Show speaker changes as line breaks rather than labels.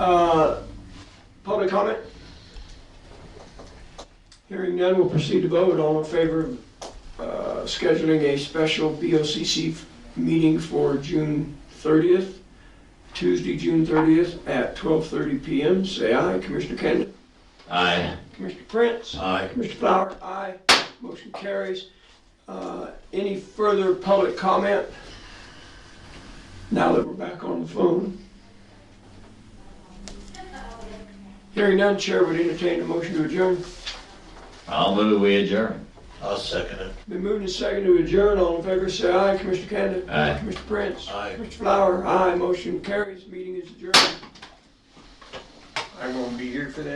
Uh, Public comment? Hearing none, we'll proceed to vote. All in favor of uh, scheduling a special BOCC meeting for June 30th, Tuesday, June 30th at 12:30 PM, say aye. Commissioner Kendall?
Aye.
Commissioner Prince?
Aye.
Mr. Flower? Aye. Motion carries. Uh, Any further public comment? Now that we're back on the phone. Hearing none, Chair would entertain a motion to adjourn.
I'll move we adjourn.
I'll second it.
Been moved and seconded to adjourn. All in favor, say aye. Commissioner Canada?
Aye.
Commissioner Prince?
Aye.
Mr. Flower? Aye. Motion carries. Meeting is adjourned. I won't be here for that.